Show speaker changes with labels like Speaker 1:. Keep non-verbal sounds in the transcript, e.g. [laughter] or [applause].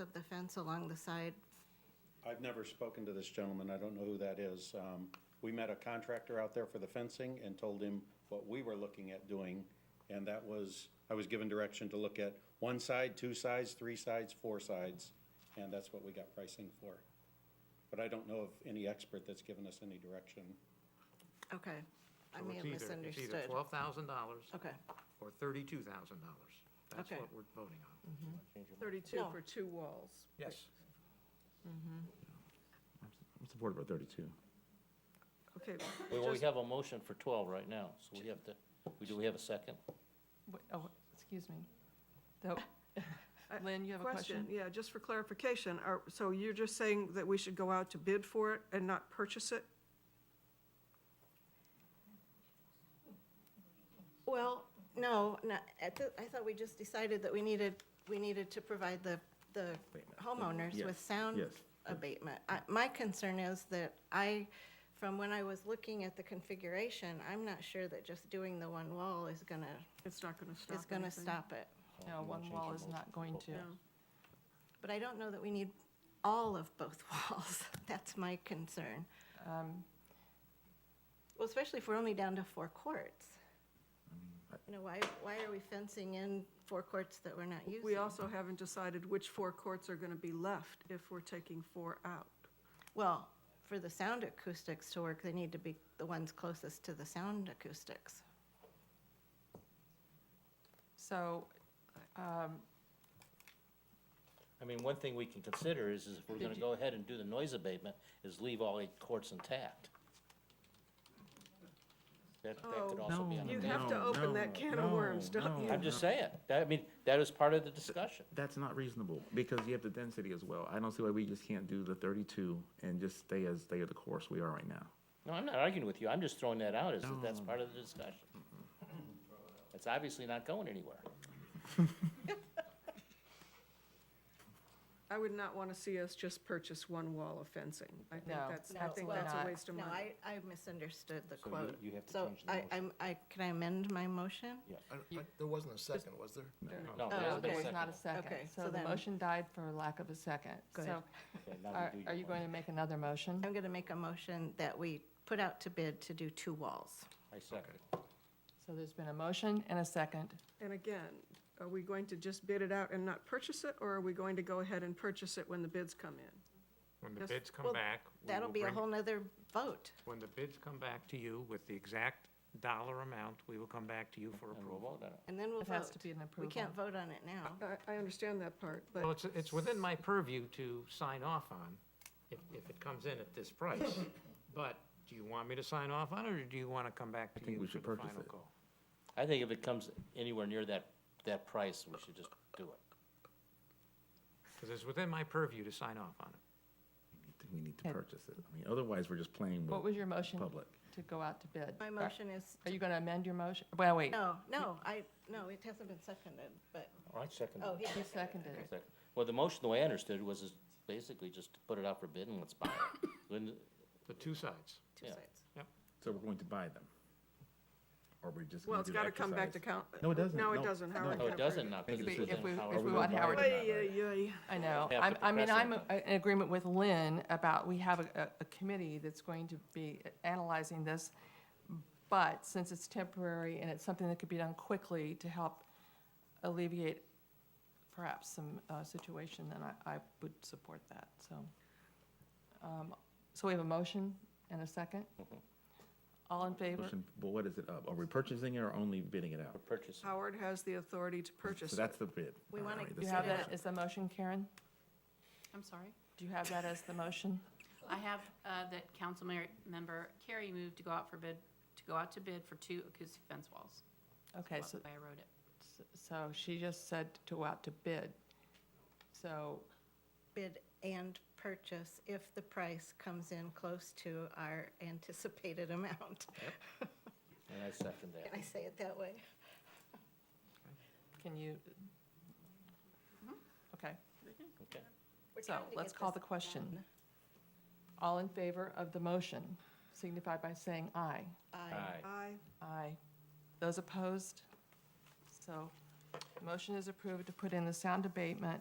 Speaker 1: of the fence along the side.
Speaker 2: I've never spoken to this gentleman, I don't know who that is. Um, We met a contractor out there for the fencing and told him what we were looking at doing, and that was, I was given direction to look at one side, two sides, three sides, four sides, and that's what we got pricing for. But I don't know of any expert that's given us any direction.
Speaker 1: Okay, I
Speaker 3: So
Speaker 1: may have
Speaker 3: it's either- It's either
Speaker 1: misunderstood.
Speaker 3: twelve thousand dollars
Speaker 1: Okay,
Speaker 3: or thirty-two thousand dollars. That's
Speaker 1: Okay.
Speaker 3: what we're voting on.
Speaker 4: 32
Speaker 1: No.
Speaker 4: for two walls.
Speaker 3: Yes.
Speaker 5: I'm supportive of 32.
Speaker 4: Okay,
Speaker 6: We, we
Speaker 4: just-
Speaker 6: have a motion for twelve right now, so we have to, we, do we have a second?
Speaker 7: Wait, Oh, excuse me.
Speaker 6: [laughs]
Speaker 7: Though- Lynn, you have a question?
Speaker 4: Uh, Yeah, just for clarification, are, so you're just saying that we should go out to bid for it and not purchase it?
Speaker 1: well, no, no, at the, I thought we just decided that we needed, we needed to provide the, the homeowners
Speaker 5: Yes,
Speaker 1: with sound
Speaker 5: yes.
Speaker 1: abatement. I- My concern is that I, from when I was looking at the configuration, I'm not sure that just doing the one wall is gonna,
Speaker 4: It's not going to stop
Speaker 1: is gonna
Speaker 4: anything.
Speaker 1: stop it.
Speaker 7: No, one wall is not going to.
Speaker 4: No.
Speaker 1: But I don't know that we need all of both [laughs] walls. That's my concern.
Speaker 7: Um,
Speaker 1: Well, especially if we're only down to four courts. You know, why, why are we fencing in four courts that we're not using?
Speaker 4: We also haven't decided which four courts are going to be left if we're taking four out.
Speaker 1: Well, for the sound acoustics to work, they need to be the ones closest to the sound acoustics.
Speaker 7: So, um,
Speaker 6: I mean, one thing we can consider is, is if we're gonna go ahead and do the noise abatement, is leave all eight courts intact. That, that could
Speaker 4: Oh,
Speaker 6: also be on
Speaker 4: You
Speaker 6: the
Speaker 4: have
Speaker 6: table.
Speaker 4: to
Speaker 5: No,
Speaker 4: open
Speaker 5: no,
Speaker 4: that can of worms,
Speaker 5: no,
Speaker 4: don't you?
Speaker 5: no.
Speaker 6: I'm just saying, that, I mean, that is part of the discussion.
Speaker 5: That's not reasonable because you have the density as well. I don't see why we just can't do the 32 and just stay as, stay the course we are right now.
Speaker 6: No, I'm not arguing with you, I'm just throwing that out, is that that's part of the discussion. It's obviously not going anywhere.
Speaker 4: I would not want to see us just purchase one wall of fencing. I think
Speaker 7: No,
Speaker 4: that's, I think
Speaker 7: absolutely
Speaker 4: that's a
Speaker 7: not.
Speaker 4: waste of
Speaker 1: No,
Speaker 4: money.
Speaker 1: I, I misunderstood the
Speaker 6: you-
Speaker 1: quote.
Speaker 6: you have to
Speaker 1: So
Speaker 6: change the
Speaker 1: I-
Speaker 6: motion.
Speaker 1: I'm- I, can I amend my motion?
Speaker 8: I don't- I- There wasn't a second, was there?
Speaker 6: No, there
Speaker 7: no,
Speaker 6: hasn't been
Speaker 7: there
Speaker 6: a
Speaker 7: was
Speaker 6: second.
Speaker 7: not a
Speaker 1: Okay,
Speaker 7: second.
Speaker 1: so
Speaker 7: So the
Speaker 1: then-
Speaker 7: motion died for lack of a second.
Speaker 1: Good.
Speaker 7: So
Speaker 6: Okay, now we
Speaker 7: are,
Speaker 6: do your
Speaker 7: are you
Speaker 6: motion.
Speaker 7: going to make another motion?
Speaker 1: I'm going to make a motion that we put out to bid to do two walls.
Speaker 6: I second.
Speaker 7: So there's been a motion and a second.
Speaker 4: And again, are we going to just bid it out and not purchase it, or are we going to go ahead and purchase it when the bids come in?
Speaker 3: When the
Speaker 4: Yes.
Speaker 3: bids come
Speaker 1: Well,
Speaker 3: back. we
Speaker 1: That'll
Speaker 3: will
Speaker 1: be a
Speaker 3: bring-
Speaker 1: whole nother vote.
Speaker 3: When the bids come back to you with the exact dollar amount, we will come back to you for
Speaker 6: And we'll
Speaker 3: approval.
Speaker 6: vote on it.
Speaker 1: And then we'll vote.
Speaker 7: It has to be an
Speaker 1: We can't vote on it now.
Speaker 7: [laughs]
Speaker 4: I, I understand that part, but.
Speaker 3: Well, it's, it's within my purview to sign off on, if, if it comes in at this price. But do you want me to sign off on it, or do you want to come back to
Speaker 5: think
Speaker 3: you
Speaker 5: we
Speaker 3: for
Speaker 5: should
Speaker 3: the
Speaker 5: purchase
Speaker 3: final
Speaker 5: it.
Speaker 3: call?
Speaker 6: I think if it comes anywhere near that, that price, we should just do it.
Speaker 3: Because it's within my purview to sign off on it.
Speaker 5: We need to purchase it. I mean, otherwise we're just playing
Speaker 7: What was
Speaker 5: with
Speaker 7: your motion
Speaker 5: public.
Speaker 7: to go out to bid?
Speaker 1: My
Speaker 7: Are-
Speaker 1: motion is,
Speaker 7: Are you going to amend your motion? Well, wait,
Speaker 1: no, no, I, no, it hasn't been seconded, but,
Speaker 6: All right, second.
Speaker 1: oh, he
Speaker 7: you
Speaker 1: seconded.
Speaker 7: seconded it.
Speaker 6: Second. Well, the motion, the way I understood it was is basically just to put it out for bid and let's buy it. Wouldn't-
Speaker 3: The two sides.
Speaker 1: Two
Speaker 6: Yeah.
Speaker 1: sides.
Speaker 5: So we're going to buy them? Or we're just
Speaker 4: Well,
Speaker 5: going
Speaker 4: it's
Speaker 5: to do
Speaker 4: got
Speaker 5: the
Speaker 4: to come back to
Speaker 5: exercise?
Speaker 4: count.
Speaker 5: No, it doesn't.
Speaker 4: No, it
Speaker 5: No,
Speaker 4: doesn't,
Speaker 5: no.
Speaker 4: Howard.
Speaker 6: No, Oh, it doesn't now, because
Speaker 5: Maybe
Speaker 6: it's
Speaker 7: If
Speaker 6: within
Speaker 7: we,
Speaker 6: Howard.
Speaker 7: if we
Speaker 5: gonna
Speaker 7: want
Speaker 5: buy it
Speaker 7: Howard
Speaker 5: or
Speaker 7: to
Speaker 5: not?
Speaker 4: Ay, ay, ay.
Speaker 7: I know.
Speaker 6: have
Speaker 7: I'm,
Speaker 6: to
Speaker 7: I mean,
Speaker 6: press
Speaker 7: I'm
Speaker 6: it.
Speaker 7: uh, in agreement with Lynn about, we have a, a committee that's going to be analyzing this. But since it's temporary and it's something that could be done quickly to help alleviate perhaps some, uh, situation, then I, I would support that, so. Um, So we have a motion and a second? All in favor?
Speaker 5: Motion- But what is it up? Are we purchasing it or only bidding it out?
Speaker 6: Purchase.
Speaker 4: Howard has the authority to purchase
Speaker 5: So
Speaker 4: it.
Speaker 5: that's the bid.
Speaker 1: We
Speaker 5: All
Speaker 1: wanna
Speaker 5: right,
Speaker 7: Do
Speaker 5: this
Speaker 7: you
Speaker 5: is
Speaker 7: have
Speaker 5: the
Speaker 7: that
Speaker 5: motion.
Speaker 7: as the motion, Karen?
Speaker 9: I'm sorry.
Speaker 7: Do you have that as the motion?
Speaker 9: I have uh, that council mer- member Carrie moved to go out for bid, to go out to bid for two acoustic fence walls.
Speaker 7: Okay,
Speaker 9: That's
Speaker 7: so
Speaker 9: the way I wrote it.
Speaker 7: So she just said to go out to bid. So,
Speaker 1: Bid and purchase if the price comes in close to our [laughs] anticipated amount.
Speaker 6: And I second that.
Speaker 1: Can I say it that way?
Speaker 7: can you? Okay,
Speaker 6: Okay.
Speaker 1: Mm-hmm. We're
Speaker 7: so
Speaker 1: trying to
Speaker 7: let's
Speaker 1: get
Speaker 7: call the
Speaker 1: this
Speaker 7: question.
Speaker 1: done.
Speaker 7: All in favor of the motion signify by saying aye.
Speaker 1: Aye.
Speaker 6: Aye.
Speaker 4: Aye.
Speaker 7: Aye. Those opposed? So, motion is approved to put in the sound abatement